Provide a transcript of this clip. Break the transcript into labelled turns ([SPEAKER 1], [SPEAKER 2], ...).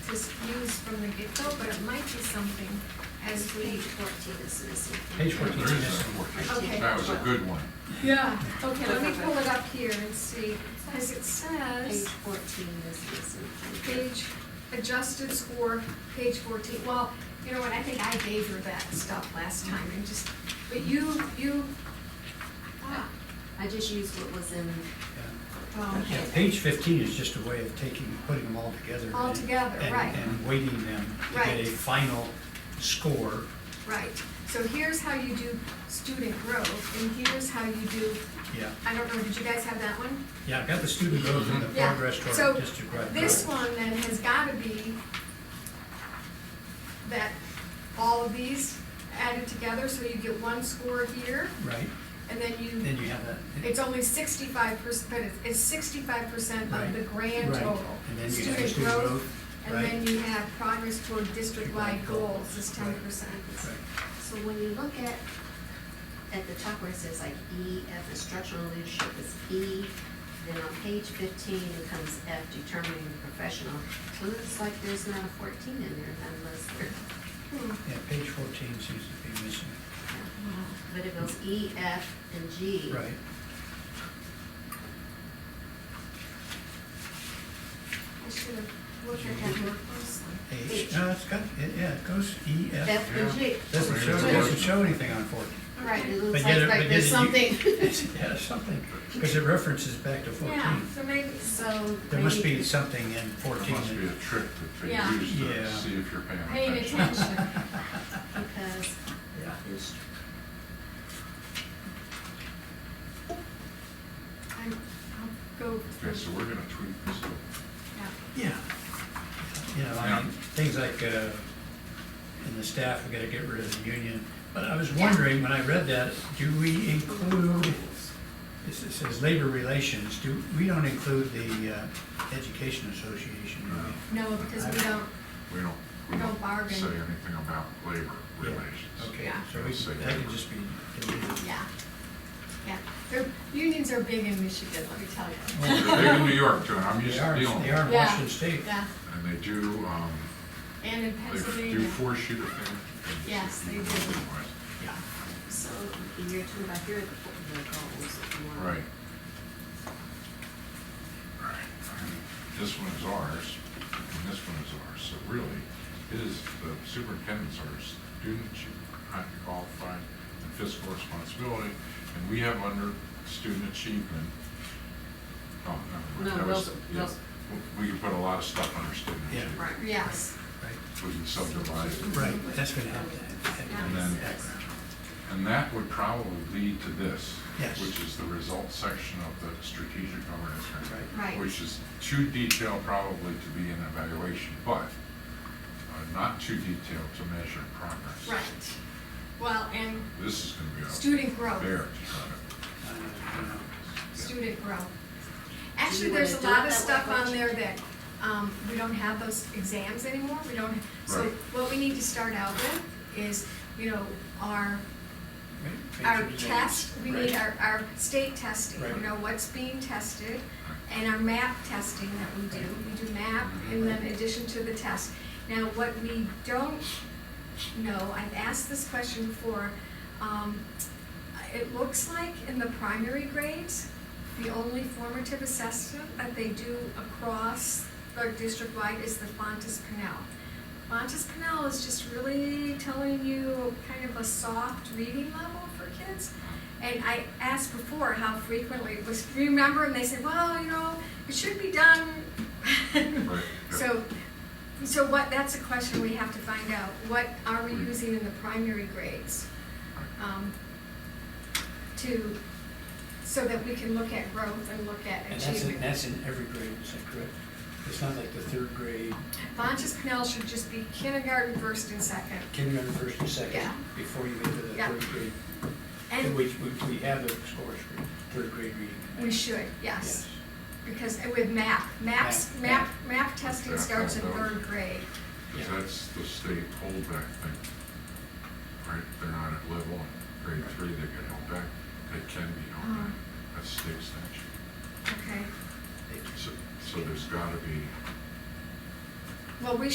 [SPEAKER 1] was used from the get-go, but it might be something as
[SPEAKER 2] Page
[SPEAKER 1] we.
[SPEAKER 2] fourteen is missing.
[SPEAKER 3] Page 14
[SPEAKER 4] There is
[SPEAKER 3] is-
[SPEAKER 4] a 14.
[SPEAKER 1] Okay.
[SPEAKER 4] That was a good one.
[SPEAKER 1] Yeah. Okay, let me pull it up here and see, because it says.
[SPEAKER 2] Page fourteen is missing.
[SPEAKER 1] page, adjusted score, page fourteen, well, you know what, I think I gave her that stuff last time, and just, but you, you, ah,
[SPEAKER 2] I just used what was in,
[SPEAKER 1] well,
[SPEAKER 3] Yeah, page fifteen is just a way of taking, putting them all together. and-
[SPEAKER 1] All together,
[SPEAKER 3] and-
[SPEAKER 1] right.
[SPEAKER 3] And weighting them to get a
[SPEAKER 1] Right.
[SPEAKER 3] final score.
[SPEAKER 1] right. So here's how you do student growth, and here's how you do,
[SPEAKER 3] Yeah,
[SPEAKER 1] I don't know, did you guys have that one?
[SPEAKER 3] yeah, I've got the student growth and the
[SPEAKER 1] Yeah.
[SPEAKER 3] progress
[SPEAKER 1] So
[SPEAKER 3] toward district wide
[SPEAKER 1] This
[SPEAKER 3] goals.
[SPEAKER 1] one then has gotta be that all of these added together, so you get one score here,
[SPEAKER 3] Right,
[SPEAKER 1] and then you.
[SPEAKER 3] then you have that.
[SPEAKER 1] It's only sixty-five percent, but it's- it's sixty-five percent of
[SPEAKER 3] Right.
[SPEAKER 1] the grand
[SPEAKER 3] Right.
[SPEAKER 1] total.
[SPEAKER 3] And then you have the student growth,
[SPEAKER 1] And
[SPEAKER 3] right.
[SPEAKER 1] then you have progress toward district-wide goals is ten percent.
[SPEAKER 3] Right.
[SPEAKER 2] so when you look at, at the top where it says like E, F, the structural leadership is E. Then on page fifteen, it comes F, determining the professional. It looks like there's not a fourteen in there unless there,
[SPEAKER 1] Hmm.
[SPEAKER 3] Yeah, page fourteen seems to be missing.
[SPEAKER 2] but it goes E, F, and G.
[SPEAKER 3] Right,
[SPEAKER 1] I should have looked at that more closely.
[SPEAKER 3] H,
[SPEAKER 2] H.
[SPEAKER 3] no, it's got, it- yeah, it goes E, F.
[SPEAKER 2] F and G.
[SPEAKER 3] Doesn't show, doesn't show anything on fourteen.
[SPEAKER 2] Right, it
[SPEAKER 3] But
[SPEAKER 2] looks
[SPEAKER 3] yet
[SPEAKER 2] like
[SPEAKER 3] it- but
[SPEAKER 2] like
[SPEAKER 3] yet
[SPEAKER 2] there's
[SPEAKER 3] it-
[SPEAKER 2] something.
[SPEAKER 3] you- it's- Yeah, something, because it references back to
[SPEAKER 1] Yeah,
[SPEAKER 3] fourteen.
[SPEAKER 1] so maybe,
[SPEAKER 2] So.
[SPEAKER 3] There must
[SPEAKER 2] maybe-
[SPEAKER 3] be something in
[SPEAKER 4] There
[SPEAKER 3] fourteen.
[SPEAKER 4] must be a
[SPEAKER 3] that-
[SPEAKER 4] trick that
[SPEAKER 1] Yeah.
[SPEAKER 4] they use to
[SPEAKER 3] Yeah.
[SPEAKER 4] see if you're paying
[SPEAKER 1] paying
[SPEAKER 4] attention.
[SPEAKER 1] attention.
[SPEAKER 2] Because
[SPEAKER 3] Yeah.
[SPEAKER 2] it's
[SPEAKER 1] I'm, I'll go
[SPEAKER 4] Okay, so
[SPEAKER 1] through,
[SPEAKER 4] we're gonna tweak this. a little.
[SPEAKER 1] yeah.
[SPEAKER 3] Yeah. You know, I mean,
[SPEAKER 4] Yeah.
[SPEAKER 3] things like, uh, in the staff, we gotta get rid of the union. But I was wondering, when I read that, do we include, it s- it says labor relations, do, we don't include the, uh, education association, do we?
[SPEAKER 1] No, because we don't,
[SPEAKER 4] We don't, we
[SPEAKER 1] We don't
[SPEAKER 4] don't
[SPEAKER 1] bargain.
[SPEAKER 4] say anything about labor relations.
[SPEAKER 3] Okay,
[SPEAKER 1] Yeah.
[SPEAKER 3] so we, that can just be deleted.
[SPEAKER 1] yeah, yeah. Their, unions are big in Michigan, let me tell you.
[SPEAKER 4] They're big in New York too, and I'm used
[SPEAKER 3] They
[SPEAKER 4] to
[SPEAKER 3] are,
[SPEAKER 4] dealing with
[SPEAKER 3] they
[SPEAKER 4] them.
[SPEAKER 3] are in
[SPEAKER 1] Yeah.
[SPEAKER 3] Washington State.
[SPEAKER 1] Yeah,
[SPEAKER 4] And they do, um,
[SPEAKER 1] and in
[SPEAKER 4] they f- do
[SPEAKER 1] Pennsylvania.
[SPEAKER 4] force you to pay. attention.
[SPEAKER 1] Yes, they do.
[SPEAKER 4] Otherwise,
[SPEAKER 3] Yeah.
[SPEAKER 2] So you're talking about here are the the goals that you want.
[SPEAKER 4] Right. Right. And This one is ours, and this one is ours, so really, it is the superintendent's ours, student achievement, highly qualified, and fiscal responsibility, and we have under student achievement. Oh, no.
[SPEAKER 2] No,
[SPEAKER 4] that was-
[SPEAKER 2] those-
[SPEAKER 4] yeah.
[SPEAKER 2] those-
[SPEAKER 4] We can put a lot of stuff under student
[SPEAKER 3] Yeah.
[SPEAKER 4] achievement.
[SPEAKER 2] Right.
[SPEAKER 1] Yes,
[SPEAKER 3] Right,
[SPEAKER 4] We can subdivide it.
[SPEAKER 3] right, that's gonna have to.
[SPEAKER 4] And then, and that would probably lead to this.
[SPEAKER 3] Yes.
[SPEAKER 4] Which is the results section of the strategic governance manual.
[SPEAKER 1] Right. Right.
[SPEAKER 4] Which is too detailed probably to be an evaluation, but uh, not too detailed to measure progress.
[SPEAKER 1] right. Well, and
[SPEAKER 4] This is gonna be a
[SPEAKER 1] student growth.
[SPEAKER 4] bear to try
[SPEAKER 1] student growth. Actually,
[SPEAKER 2] you
[SPEAKER 1] there's a
[SPEAKER 2] wanna do
[SPEAKER 1] lot
[SPEAKER 2] it
[SPEAKER 1] of
[SPEAKER 2] that way,
[SPEAKER 1] stuff on
[SPEAKER 2] Gretchen?
[SPEAKER 1] there that, um, we don't have those exams anymore, we don't, so
[SPEAKER 4] Right.
[SPEAKER 1] what we need to start out with is, you know, our, our test, we need our, our state testing, you
[SPEAKER 3] Right.
[SPEAKER 1] know, what's being tested, and our map testing that we do, we do map, and then addition to the test. Now, what we don't know, I've asked this question before, um, it looks like in the primary grades, the only formative assessment that they do across the district-wide is the Fontes Canal. Fontes Canal is just really telling you kind of a soft reading level for kids. And I asked before how frequently it was, remember, and they said, well, you know, it should be done.
[SPEAKER 4] Right, yeah.
[SPEAKER 1] So, so what, that's a question we have to find out, what are we using in the primary grades? um, to, so that we can look at growth and look at
[SPEAKER 3] And that's, in-
[SPEAKER 1] achievement.
[SPEAKER 3] that's in every grade, is that correct? It's not like the third grade,
[SPEAKER 1] Bonches Canal should just be kindergarten, first and second.
[SPEAKER 3] kindergarten, first and second,
[SPEAKER 1] Yeah.
[SPEAKER 3] before you get to the
[SPEAKER 1] Yeah.
[SPEAKER 3] third grade.
[SPEAKER 1] And
[SPEAKER 3] Which, which we have the scores for third grade reading.
[SPEAKER 1] we should, yes, because with map, maps, map,
[SPEAKER 3] Map,
[SPEAKER 1] map testing starts in third grade.
[SPEAKER 3] Yeah.
[SPEAKER 4] Because that's the state holdback thing. Right, they're not at level, in grade
[SPEAKER 3] Right.
[SPEAKER 4] three, they get held back, they can be held
[SPEAKER 1] Uh-huh.
[SPEAKER 4] back, that's state statute.
[SPEAKER 1] Okay,
[SPEAKER 3] Yes.
[SPEAKER 4] So, so there's gotta be
[SPEAKER 1] well, we